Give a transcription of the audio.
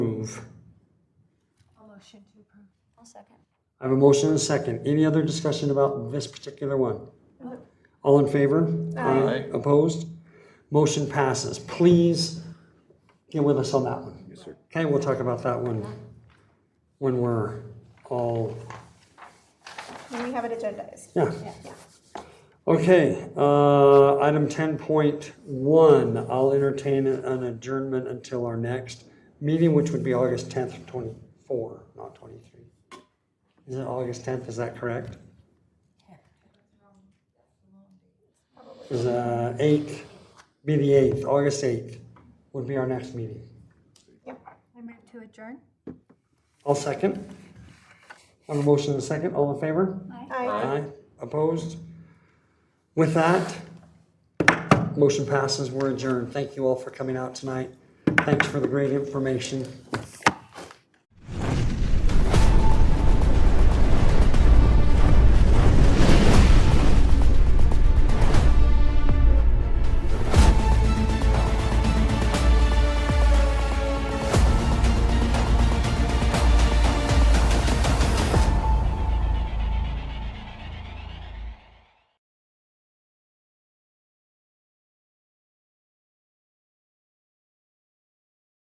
Motion to approve. I'll second. I have a motion and a second. Any other discussion about this particular one? All in favor? Aye. Opposed? Motion passes. Please get with us on that one. Yes, sir. Okay, we'll talk about that one when we're all, When we have it agendized. yeah. Yeah. Okay, uh, item ten point one, I'll entertain an adjournment until our next meeting, which would be August tenth, twenty-four, not twenty-three. Is it August tenth, is that correct? Is, uh, eighth, be the eighth, August eighth would be our next meeting. I move to adjourn. I'll second. I have a motion and a second, all in favor? Aye. Aye. Opposed? With that, motion passes. We're adjourned. Thank you all for coming out tonight. Thanks for the great information.